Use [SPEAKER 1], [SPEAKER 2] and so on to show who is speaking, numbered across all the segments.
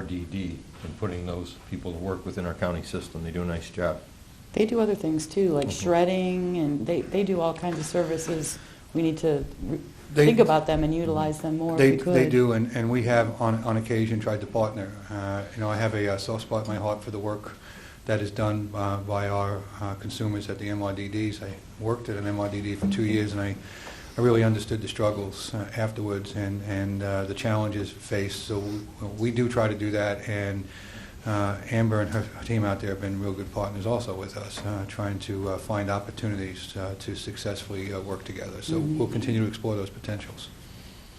[SPEAKER 1] MRDD and putting those people to work within our county system. They do a nice job.
[SPEAKER 2] They do other things too, like
[SPEAKER 3] Mm-hmm.
[SPEAKER 1] Mhm.
[SPEAKER 2] shredding, and they, they do all kinds of services. We need to re-
[SPEAKER 3] They-
[SPEAKER 2] think about them and utilize them more
[SPEAKER 3] They,
[SPEAKER 2] if we could.
[SPEAKER 3] they do, and, and we have on, on occasion tried to partner. Uh, You know, I have a uh, soft spot in my heart for the work that is done uh, by our uh, consumers at the MRDDs. I worked at an MRDD for two years, and I, I really understood the struggles uh, afterwards and, and uh, the challenges faced. So we- we do try to do that, and uh, Amber and her her team out there have been real good partners also with us, uh, trying to uh, find opportunities uh, to successfully uh, work together. So
[SPEAKER 2] Mhm.
[SPEAKER 3] we'll continue to explore those potentials.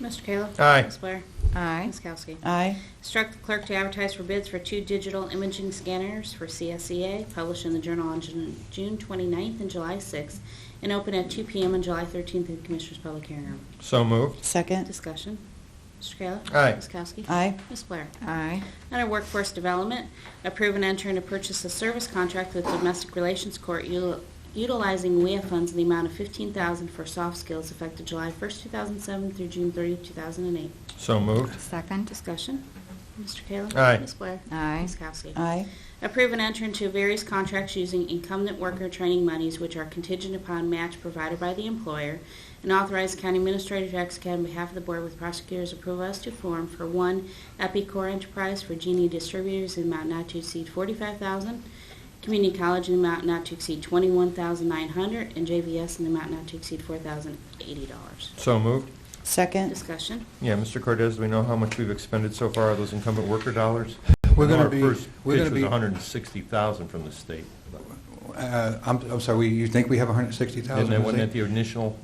[SPEAKER 4] Mr. Kayla?
[SPEAKER 1] Aye.
[SPEAKER 4] Ms. Blair?
[SPEAKER 5] Aye.
[SPEAKER 4] Ms. Kowski?
[SPEAKER 2] Aye.
[SPEAKER 4] Instruct the clerk to advertise for bids for two digital imaging scanners for CSEA, published in the Journal on Jun- June 29th and July 6th, and open at 2 p.m. on July 13th in the Commissioners' Public Hearing Room.
[SPEAKER 1] So moved.
[SPEAKER 2] Second.
[SPEAKER 4] Discussion. Mr. Kayla?
[SPEAKER 1] Aye.
[SPEAKER 4] Ms. Kowski?
[SPEAKER 2] Aye.
[SPEAKER 4] Ms. Blair?
[SPEAKER 5] Aye.
[SPEAKER 4] Under Workforce Development, approve and enter into purchase a service contract with Domestic Relations Court util- utilizing WIA funds in the amount of 15000 for soft skills effective July 1st, 2007 through June 30th, 2008.
[SPEAKER 1] So moved.
[SPEAKER 5] Second.
[SPEAKER 4] Discussion. Mr. Kayla?
[SPEAKER 1] Aye.
[SPEAKER 4] Ms. Blair?
[SPEAKER 5] Aye.
[SPEAKER 4] Ms. Kowski?
[SPEAKER 2] Aye.
[SPEAKER 4] Approve and enter into various contracts using incumbent worker training monies which are contingent upon match provided by the employer, and authorize county administrator to execute on behalf of the board with prosecutor's approval as to form for one Epicor Enterprise for Genie Distributors in amount not to exceed forty-five thousand, Community College in amount not to exceed twenty-one thousand nine hundred, and JVS in amount not to exceed four thousand eighty dollars.
[SPEAKER 1] So moved.
[SPEAKER 2] Second.
[SPEAKER 4] Discussion.
[SPEAKER 1] Yeah, Mr. Cordez, do we know how much we've expended so far of those incumbent worker dollars?
[SPEAKER 3] We're
[SPEAKER 1] I know our
[SPEAKER 3] gonna be-
[SPEAKER 1] first
[SPEAKER 3] we're gonna
[SPEAKER 1] pitch was
[SPEAKER 3] be-
[SPEAKER 1] 160,000 from the state.
[SPEAKER 3] Uh, I'm I'm sorry, we- you think we have 160,000?
[SPEAKER 1] Isn't that, wasn't
[SPEAKER 3] I
[SPEAKER 1] that
[SPEAKER 3] think-
[SPEAKER 1] the initial?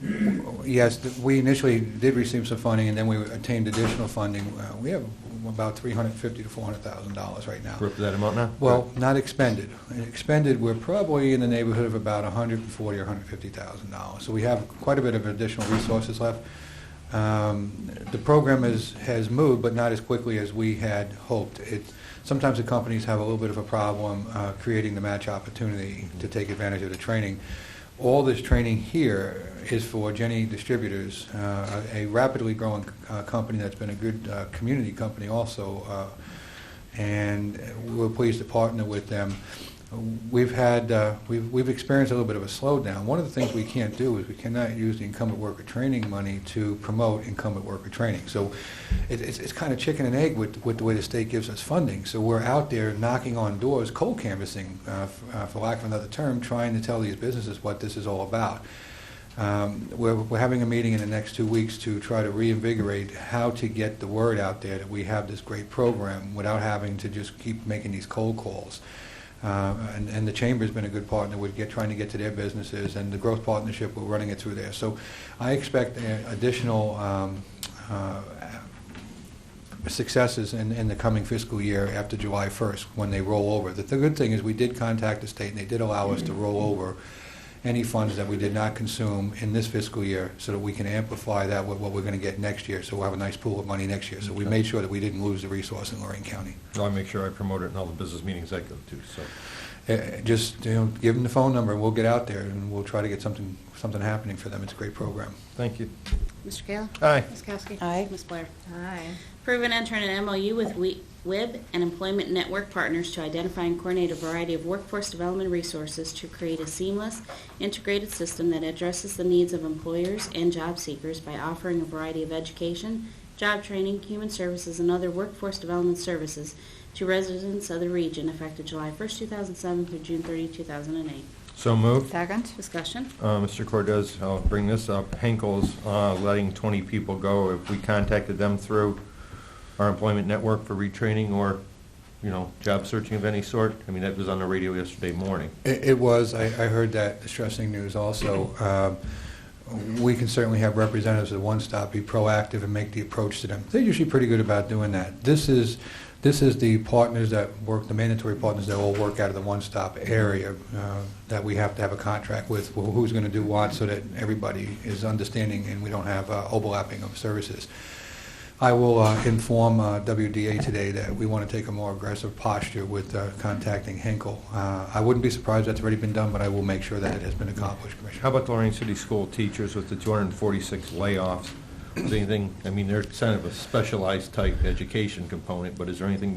[SPEAKER 3] Yes, th- we initially did receive some funding, and then we attained additional funding. Uh, We have about 350 to 400,000 dollars right now.
[SPEAKER 1] We're up to that amount now?
[SPEAKER 3] Well, not expended. Expended, we're probably in the neighborhood of about 140 or 150,000 dollars. So we have quite a bit of additional resources left. Um, The program is, has moved, but not as quickly as we had hoped. It, sometimes the companies have a little bit of a problem uh, creating the match opportunity to take advantage of the training. All this training here is for Jenny Distributors, uh, a rapidly growing uh, company that's been a good uh, community company also, uh, and we're pleased to partner with them. We've had, uh, we've we've experienced a little bit of a slowdown. One of the things we can't do is we cannot use the incumbent worker training money to promote incumbent worker training. So it- it's it's kind of chicken and egg with with the way the state gives us funding. So we're out there knocking on doors, cold canvassing, uh, f- uh, for lack of another term, trying to tell these businesses what this is all about. Um, We're we're having a meeting in the next two weeks to try to reinvigorate how to get the word out there that we have this great program without having to just keep making these cold calls. Uh, And and the Chamber's been a good partner with get, trying to get to their businesses, and the Growth Partnership, we're running it through there. So I expect uh, additional um, uh, successes in, in the coming fiscal year after July 1st, when they roll over. The, the good thing is, we did contact the state, and they did allow us to roll over any funds that we did not consume in this fiscal year, so that we can amplify that with what we're going to get next year, so we'll have a nice pool of money next year. So we
[SPEAKER 1] Okay.
[SPEAKER 3] made sure that we didn't lose the resource in Lorraine County.
[SPEAKER 1] I make sure I promote it in all the business meetings I go to, so.
[SPEAKER 3] Uh, Just, you know, give them the phone number, and we'll get out there, and we'll try to get something, something happening for them. It's a great program.
[SPEAKER 1] Thank you.
[SPEAKER 4] Mr. Kayla?
[SPEAKER 1] Aye.
[SPEAKER 4] Ms. Kowski?
[SPEAKER 2] Aye.
[SPEAKER 4] Ms. Blair?
[SPEAKER 5] Aye.
[SPEAKER 4] Approve and enter an MOU with We- WIB and Employment Network Partners to identify and coordinate a variety of workforce development resources to create a seamless, integrated system that addresses the needs of employers and job seekers by offering a variety of education, job training, human services, and other workforce development services to residents of the region effective July 1st, 2007 through June 30, 2008.
[SPEAKER 1] So moved.
[SPEAKER 5] Second.
[SPEAKER 4] Discussion.
[SPEAKER 1] Uh, Mr. Cordez, I'll bring this up. Henkel's uh, letting 20 people go. If we contacted them through our employment network for retraining or, you know, job searching of any sort, I mean, that was on the radio yesterday morning.
[SPEAKER 3] It it was, I I heard that distressing news also. Um, We can certainly have representatives at One Stop be proactive and make the approach to them. They're usually pretty good about doing that. This is, this is the partners that work, the mandatory partners that all work out of the One Stop area uh, that we have to have a contract with, wh- who's going to do what, so that everybody is understanding and we don't have uh, overlapping of services. I will uh, inform uh, WDA today that we want to take a more aggressive posture with uh, contacting Henkel. Uh, I wouldn't be surprised that's already been done, but I will make sure that it has been accomplished,
[SPEAKER 1] How
[SPEAKER 3] Commissioner.
[SPEAKER 1] about the Lorraine City School teachers with the 246 layoffs? Is anything, I mean, they're kind of a specialized type education component, but is there anything